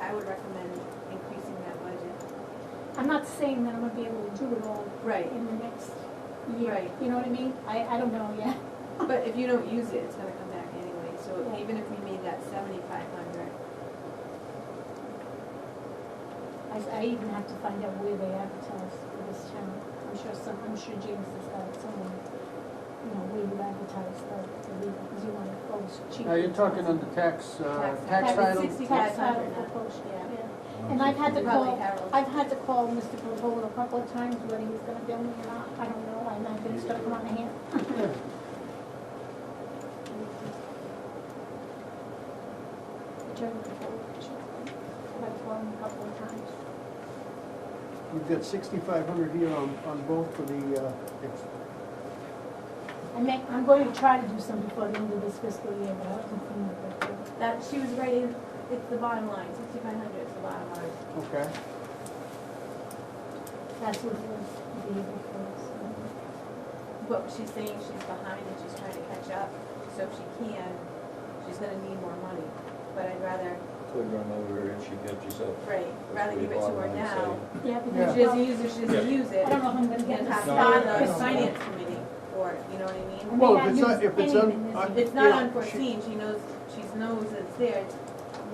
I would recommend increasing that budget. I'm not saying that I'm gonna be able to do it all Right. in the next year, Right. you know what I mean? I, I don't know yet. But if you don't use it, it's gonna come back anyway, so Yeah. even if we made that seventy-five hundred, I, I even have to find out where they advertise for this channel. I'm sure some, I'm sure James has got it somewhere, you know, where you advertise the, the league, because you want to post cheap. Now, you're talking on the tax, uh, Tax- tax tax title? is Tax title 6,500 for now. post, Yeah. yeah. And I've had to probably call, Harold. I've had to call Mr. Pavola a couple of times whether he's gonna bill me or not, I don't know, I might be stuck on my hand. Attorney Pavola, she's, I've called him a couple of times. We've got sixty-five hundred here on, on both for the, uh, ex- I may, I'm going to try to do some before the end of this fiscal year, but uh, I'll continue with that. that, she was right in, it's the bottom line, sixty-five hundred is the bottom line. okay. That's what was the year before, so. But she's saying she's behind and she's trying to catch up, so if she can, she's gonna need more money. But I'd rather, Could run over and she got yourself. right, rather give it to her now. Yeah, If because, she doesn't well, use it, she doesn't use it. I don't know if I'm gonna get And this. pass No, it I- on I to the don't finance committee for, it, you know what I mean? may Well, if not it's use not- if it's un- anything this I- year. It's not Yeah, she- unforeseen, she knows, she knows it's there, it's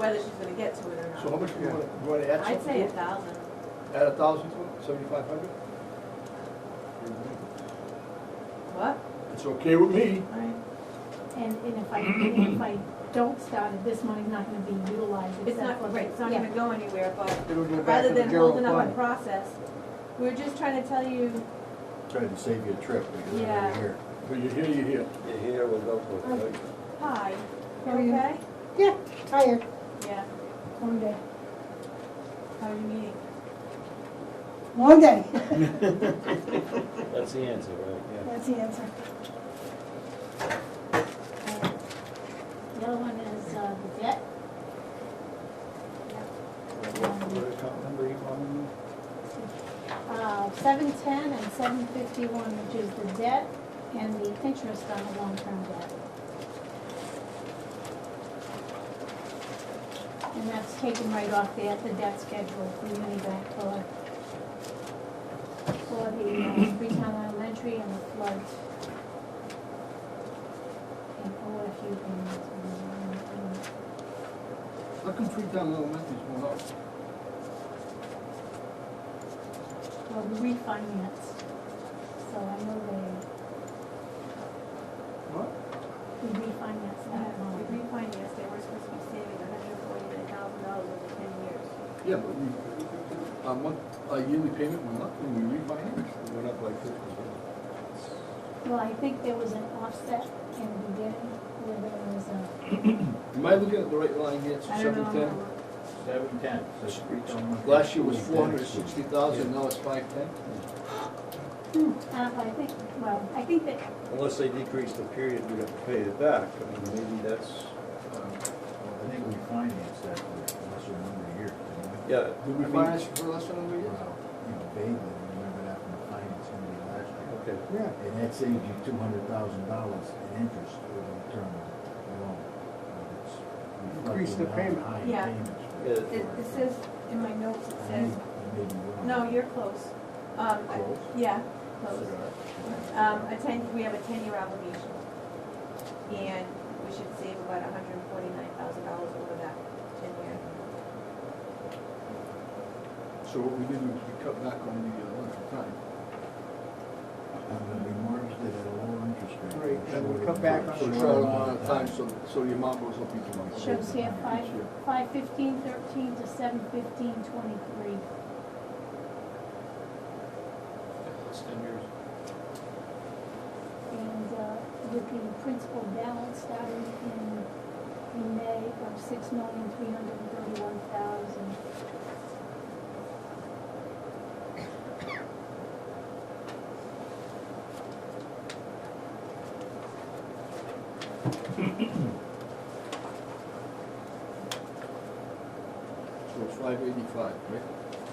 whether she's gonna get to it or So how not. much do you want, you want to add I'd something say to a it? thousand. Add a thousand to it, seventy-five hundred? What? It's okay with me. And, and if I, and if I don't start it, this money's not gonna be utilized It's except not, for. right, it's not Yeah. gonna go anywhere, but It'll go back rather to the than general holding up a fund. process, we're just trying to tell you, Tried to save you a trip because Yeah. I'm here. But you hear, you hear. You're here, we'll go for it. hi, you How are you? okay? Yeah, tired, Yeah, one day. how are you meeting? One day, Oh. That's the answer, right? that's the answer. The other one is, uh, the debt. What account number you on? Uh, seven ten and seven fifty-one, which is the debt and the interest on the long-term debt. And that's taken right off the, the debt schedule for Unibank for, for the uh, Freetown Elementary and the flood. And for a few things. um, How come Freetown Elementary's going up? um, Well, we refinanced, so I know they, What? we refinanced that We loan. refinanced, they were supposed to be saving hundred and forty-nine thousand dollars over ten years. Yeah, but we, our month, our yearly payment went up when we refinanced. It went up like fifty. Well, I think there was an offset in the beginning where there was a, Am I looking at the right line here? It's I don't know. I'm seven ten. gonna look. Seven ten, Um, so she reached on. Last year was four hundred sixty uh, thousand, now it's five ten. uh, I think, well, I think that, Unless they decrease the period, we have to pay it back. I mean, maybe that's, um, I think we financed that for a lesser number of years, didn't we? yeah. I Did we mean- finance for less than a year? Well, you know, vaguely, I remember that from the finance committee last year. Okay. Yeah. And that saved you two hundred thousand dollars in interest over the term of the loan. But it's Increase the reflected on payment. high Yeah. payments. It- It, it says, in my notes, it I says, may- I may be wrong. no, you're close. Um, I- Close? Yeah, close. Um, a ten, we have a ten-year obligation. And we should save about hundred and forty-nine thousand dollars over that ten-year. So what we did was we cut back on the uh, length of time. I'm gonna be mortgaged at a lower interest rate. Right, I'm and we sure cut back on it's So a it's short not amount of time, so so, so the amount goes up each month. shows here five, Each year. five fifteen thirteen to seven fifteen twenty-three. That's ten years. And, uh, with the principal balance starting in, in May of six million three hundred and thirty-one thousand. So it's five eighty-five, right?